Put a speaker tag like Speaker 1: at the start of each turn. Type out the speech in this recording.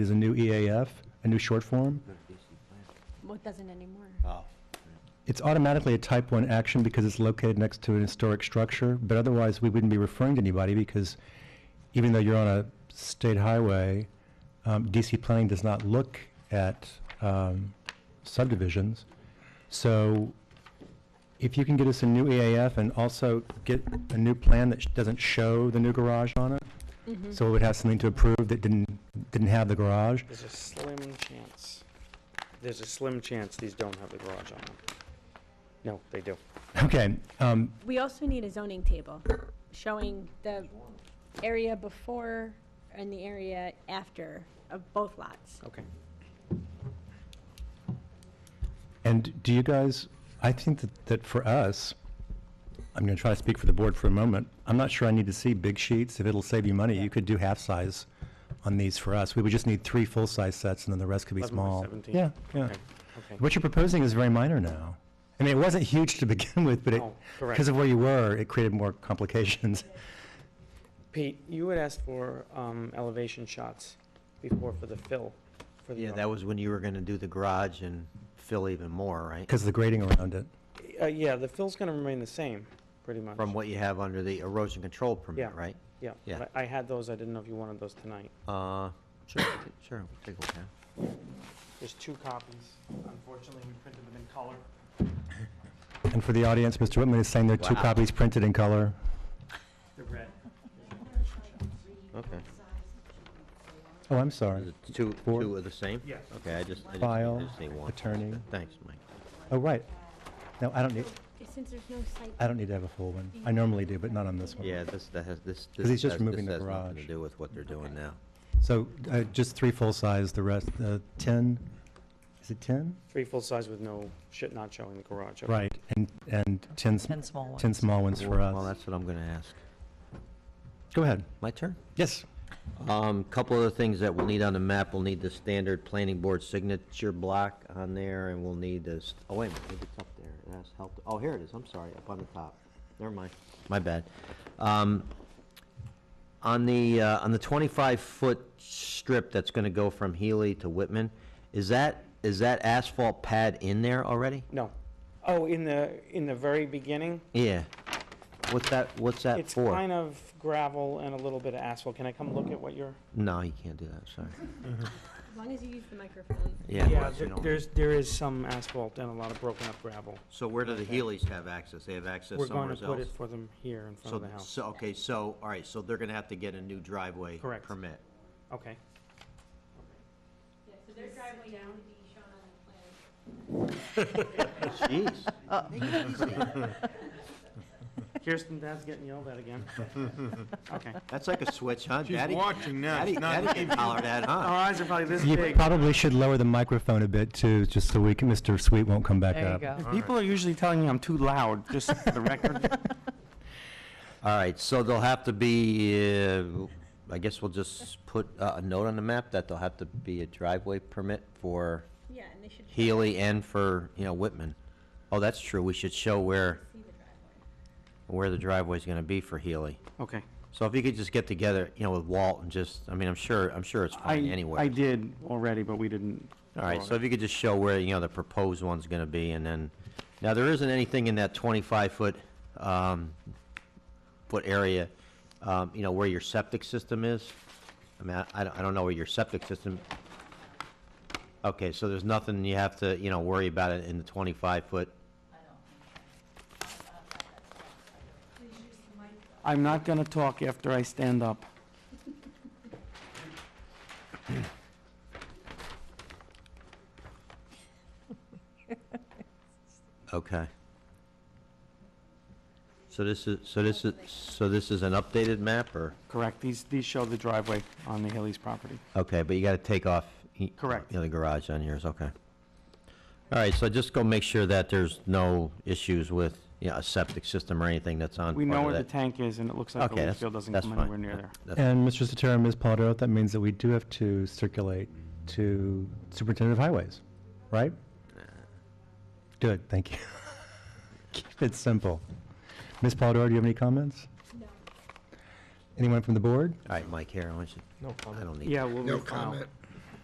Speaker 1: is a new EAF, a new short form.
Speaker 2: Well, it doesn't anymore.
Speaker 3: Oh,
Speaker 1: It's automatically a type one action because it's located next to an historic structure, but otherwise we wouldn't be referring to anybody because even though you're on a state highway, um, DC planning does not look at, um, subdivisions. So if you can get us a new EAF and also get a new plan that sh- doesn't show the new garage on it, so it would have something to approve that didn't, didn't have the garage,
Speaker 4: There's a slim chance, there's a slim chance these don't have the garage on them. No, they do.
Speaker 1: Okay, um,
Speaker 2: We also need a zoning table showing the area before and the area after of both lots.
Speaker 4: Okay.
Speaker 1: and do you guys, I think that, that for us, I'm gonna try to speak for the board for a moment. I'm not sure I need to see big sheets. If it'll save you money, you could do half-size on these for us. We would just need three full-size sets and then the rest could be
Speaker 4: 11 by
Speaker 1: small.
Speaker 4: 17.
Speaker 1: Yeah, yeah.
Speaker 4: Okay, okay.
Speaker 1: What you're proposing is very minor now. I mean, it wasn't huge to begin with, but it,
Speaker 4: No, Oh, correct.
Speaker 1: because of where you were, it created more complications.
Speaker 4: Pete, you had asked for um, elevation shots before for the fill, for the.
Speaker 3: yeah, that was when you were gonna do the garage and fill even more, right?
Speaker 1: Because of the grading around it.
Speaker 4: Uh, Yeah, the fill's going to remain the same, pretty much.
Speaker 3: From what you have under the erosion control permit,
Speaker 4: Yeah.
Speaker 3: right?
Speaker 4: Yeah,
Speaker 3: yeah.
Speaker 4: but I had those, I didn't know if you wanted those tonight.
Speaker 3: Uh, sure, we'll ta- sure, we'll take a look at it.
Speaker 4: There's two copies. Unfortunately, we printed them in color.
Speaker 1: And for the audience, Mr. Whitman is saying there are two
Speaker 3: Wow.
Speaker 1: copies printed in color.
Speaker 4: They're red.
Speaker 3: Okay.
Speaker 1: Oh, I'm sorry.
Speaker 3: Is it Two,
Speaker 1: Four.
Speaker 3: two are the same?
Speaker 4: Yes.
Speaker 3: Okay, I just, I just
Speaker 1: File,
Speaker 3: needed to say one.
Speaker 1: attorney.
Speaker 3: Thanks, Mike.
Speaker 1: Oh, right. No, I don't need,
Speaker 2: Since there's no site.
Speaker 1: I don't need to have a full one. I normally do, but not on this one.
Speaker 3: Yeah, this, that has, this, this
Speaker 1: 'Cause he's just
Speaker 3: has-
Speaker 1: moving
Speaker 3: this
Speaker 1: the
Speaker 3: has nothing to
Speaker 1: garage.
Speaker 3: do with what they're doing now.
Speaker 1: So uh, just three full-size, the rest, uh, 10, is it 10?
Speaker 4: Three full size with no, shit not showing the garage. okay.
Speaker 1: Right, and, and 10, sm-
Speaker 5: 10 small ones.
Speaker 1: 10 small ones for
Speaker 3: Well,
Speaker 1: us.
Speaker 3: that's what I'm gonna ask.
Speaker 1: Go ahead.
Speaker 3: My turn?
Speaker 1: Yes.
Speaker 3: Um, couple other things that we'll need on the map, we'll need the standard planning board signature block on there, and we'll need this, oh, wait a minute, maybe it's up there, it has help, oh, here it is, I'm sorry, up on the top, never mind, my bad. Um, on the, uh, on the twenty-five foot strip that's gonna go from Healy to Whitman, is that, is that asphalt pad in there already?
Speaker 4: No. Oh, in the, in the very beginning,
Speaker 3: Yeah, what's that, what's that
Speaker 4: It's
Speaker 3: for?
Speaker 4: kind of gravel and a little bit of asphalt. Can I come look at what you're?
Speaker 3: No, you can't do that, sorry,
Speaker 2: As long as you use the microphone.
Speaker 3: yeah. well, you
Speaker 4: there-
Speaker 3: don't-
Speaker 4: there's, there is some asphalt and a lot of broken up gravel.
Speaker 3: So where do the Healy's have access, they have access
Speaker 4: We're
Speaker 3: somewhere
Speaker 4: going
Speaker 3: else?
Speaker 4: to put it for them here in front
Speaker 3: So,
Speaker 4: of the house.
Speaker 3: so, okay, so, all right, so they're gonna have to get a new driveway
Speaker 4: Correct.
Speaker 3: permit.
Speaker 4: Okay.
Speaker 2: Yeah, so their driveway now would be shown on the plan.
Speaker 3: Jeez.
Speaker 4: Kirsten, Dad's getting yelled at again. Okay.
Speaker 3: That's like a switch, huh?
Speaker 6: She's
Speaker 3: Daddy-
Speaker 6: watching now,
Speaker 3: Daddy,
Speaker 6: she's not
Speaker 3: Daddy
Speaker 6: leaving.
Speaker 3: can holler that, huh?
Speaker 4: Our eyes are probably this
Speaker 1: You
Speaker 4: big.
Speaker 1: probably should lower the microphone a bit too, just so we can, Mr. Sweet won't come back
Speaker 5: There you
Speaker 1: up.
Speaker 5: go.
Speaker 4: People are usually telling me I'm too loud, just for the record.
Speaker 3: All right, so they'll have to be, uh, I guess we'll just put a a note on the map that there'll have to be a driveway permit for
Speaker 2: Yeah, and they should. show-
Speaker 3: Healy and for, you know, Whitman. Oh, that's true, we should show where,
Speaker 2: see the driveway.
Speaker 3: where the driveway's gonna be for Healy.
Speaker 4: Okay.
Speaker 3: So if you could just get together, you know, with Walt and just, I mean, I'm sure, I'm sure it's
Speaker 4: I,
Speaker 3: fine anyway.
Speaker 4: I did already, but we didn't.
Speaker 3: All right, so if you could just show where, you know, the proposed one's gonna be, and then, now, there isn't anything in that twenty-five foot, um, foot area, um, you know, where your septic system is? I mean, I, I don't- I don't know where your septic system, okay, so there's nothing you have to, you know, worry about it in the twenty-five foot?
Speaker 4: I'm not gonna talk after I stand up.
Speaker 3: Okay. So this is, so this is, so this is an updated map, or?
Speaker 4: Correct. These, these show the driveway on the Haley's property.
Speaker 3: Okay, but you gotta take off. y-
Speaker 4: Correct.
Speaker 3: You know, the garage on yours, okay. All right, so just go make sure that there's no issues with, you know, a septic system or anything that's on
Speaker 4: We
Speaker 3: part
Speaker 4: know
Speaker 3: of
Speaker 4: where the
Speaker 3: that.
Speaker 4: tank is, and it looks like
Speaker 3: Okay,
Speaker 4: the leach
Speaker 3: that's-
Speaker 4: field doesn't
Speaker 3: that's
Speaker 4: come
Speaker 3: fine.
Speaker 4: anywhere near there.
Speaker 3: That's-
Speaker 1: And Mr. Sotero and Ms. Polidoro, that means that we do have to circulate to Superintendent of Highways, right? Good, thank you. Keep it simple. Ms. Polidoro, do you have any comments?
Speaker 2: No.
Speaker 1: Anyone from the board?
Speaker 3: All right, Mike, here, I want you, I don't need,
Speaker 4: Yeah, we'll refile.